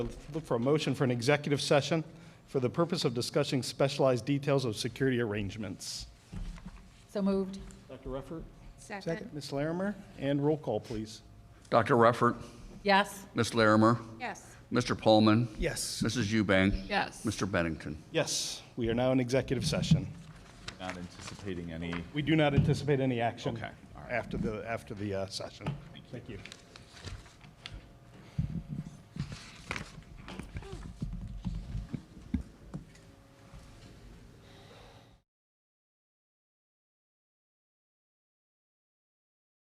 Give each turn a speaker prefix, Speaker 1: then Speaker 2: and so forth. Speaker 1: Look for a motion for an executive session for the purpose of discussing specialized details of security arrangements.
Speaker 2: So moved.
Speaker 1: Dr. Rufford?
Speaker 3: Second.
Speaker 1: Ms. Larimer? And roll call, please.
Speaker 4: Dr. Ruffert,
Speaker 2: Yes.
Speaker 4: Ms. Larimer,
Speaker 3: Yes.
Speaker 4: Mr. Pullman,
Speaker 1: Yes.
Speaker 4: Mrs. Eubank,
Speaker 2: Yes.
Speaker 4: Mr. Bennington.
Speaker 1: Yes, we are now in executive session.
Speaker 5: Not anticipating any
Speaker 1: We do not anticipate any action
Speaker 5: Okay, all right.
Speaker 1: after the, after the uh, session. Thank you.